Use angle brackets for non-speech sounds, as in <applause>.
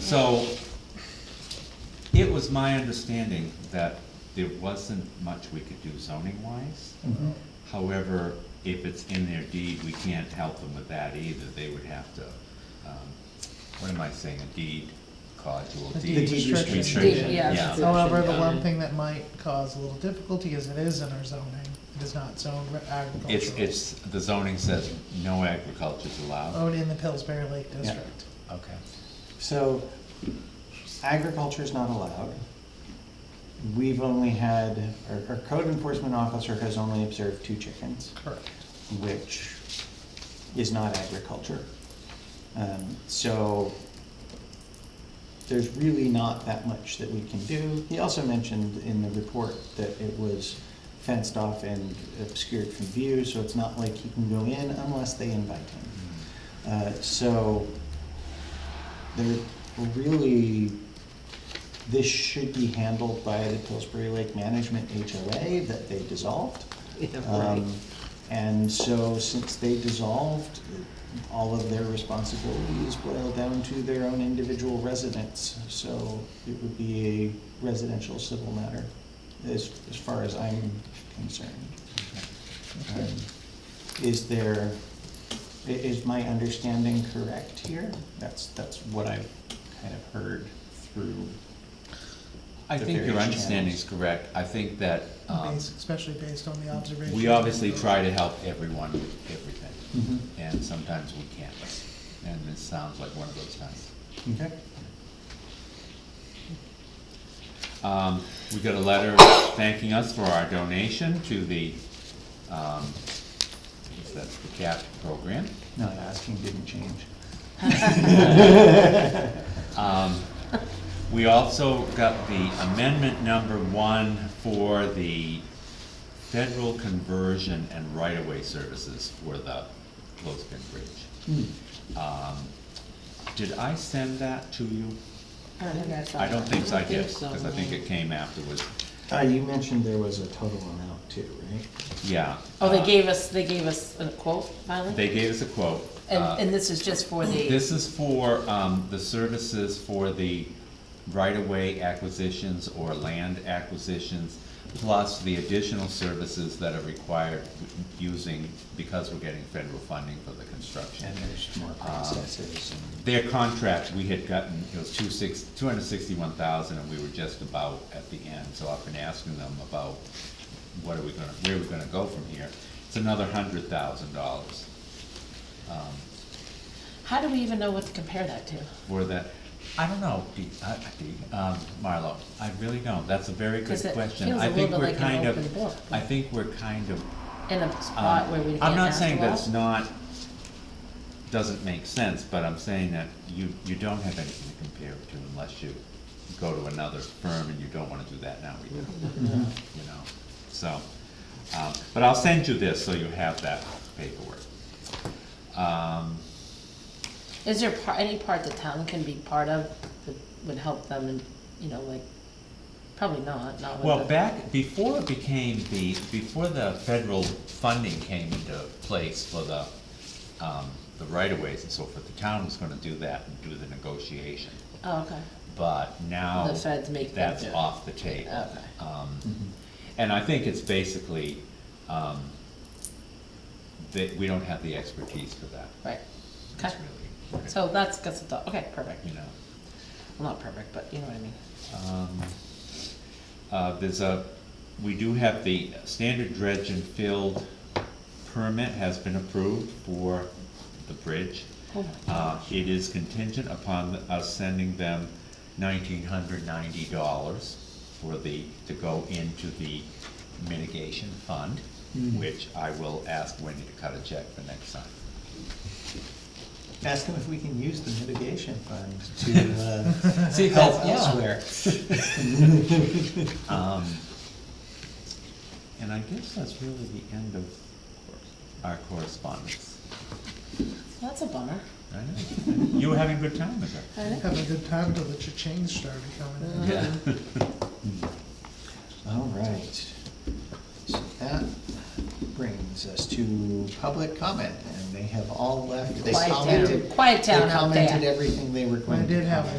So, it was my understanding that there wasn't much we could do zoning wise. Mm-hmm. However, if it's in their deed, we can't help them with that either, they would have to, um, what am I saying, a deed, codule The deed. deed restriction. restriction, Deed, yeah. However, the Yeah. one thing that might cause a little difficulty is it is in our zoning, it is not zoned for agricultural. It's, it's, the zoning says no agriculture is allowed. Oh. Owned in the Pillsbury Lake District. Okay. So agriculture's not allowed. We've only had, our, our code enforcement officer has only observed two chickens, Correct. which is not agriculture. Um, so there's really not that much that we can do. He also mentioned in the report that it was fenced off and obscured from view, so it's not like he can go in unless they invite him. Uh, So, there, really, this should be handled by the Pillsbury Lake Management HOA that they dissolved. right. Um, And so, since they dissolved, all of their responsibilities boil down to their own individual residents. So, it would be a residential civil matter, as, as far as I'm concerned. Um, Is there, i- is my understanding correct here? That's, that's what I've kind of heard through. I The think your various understanding is correct, I think that, um, Based- Especially based on the observation. we obviously try to help everyone with everything, and sometimes we can't. And this sounds like one of those times. Okay. Um, we got a letter thanking us for our donation to the, um, I guess that's the CAP program. No, asking didn't change. Um, we also got the amendment number one for the federal conversion and right-of-way services for the Clothespin Bridge. Um, did I send that to you? I don't think I did, because I think it came afterwards, Uh, you mentioned there was a total amount too, right? yeah. Oh, they uh, gave us, they gave us a quote finally? They gave us a quote. And, uh, and this is just for the, This is for, um, the services for the right-of-way acquisitions or land acquisitions, plus the additional services that are required using, because we're getting federal funding for the construction. And there's more processes and, Their contract, we had gotten, it was two six, two hundred sixty-one thousand, and we were just about at the end, so I've been asking them about what are we gonna, where are we gonna go from here? It's another hundred thousand dollars. how do we even know what to compare that to? for that? I don't know, Dee, uh, Dee, um, Marlo, I really don't, that's a very good 'Cause it question. feels I a think little we're bit like an kind of. open book. I think we're kind of, In a spot where we um, can't I'm not ask saying the law? that's not, doesn't make sense, but I'm saying that you, you don't have anything to compare it to unless you go to another firm, and you don't wanna do that now either, you know, so. Um, but I'll send you this, so you have that paperwork. Um, Is there par- any part the town can be part of that would help them and, you know, like, probably not, not with Well, the- back, before it became the, before the federal funding came into place for the, um, the right-of-ways and so forth, the town was gonna do that and do the negotiation. Oh, okay, But now, The feds make them that's do it. off the table. okay. Um, mm-hmm. and I think it's basically, um, that we don't have the expertise for that. Right. It's Okay. really- So that's, that's, a thought. okay, perfect. You know. Well, not perfect, but you know what I mean. Um, uh, There's a, we do have the standard dredge and filled permit has been approved for the bridge. Oh my Uh, It is contingent upon us sending them nineteen hundred ninety dollars for the, to go into the mitigation fund, Mm. which I will ask Wendy to cut a check for next time. ask them if we can use the mitigation fund to, uh, See, help elsewhere. <laughs> <laughs> Um, and I guess that's really the end of our correspondence. That's a bummer. I know. You were having a good time with her. Have a good time till the cha-ching started coming in. Yeah. <laughs> Hmm. All right. So that brings us to public comment, and they have all left. They Quiet commented. down, quiet down out They there. commented everything they were going to I did have comment.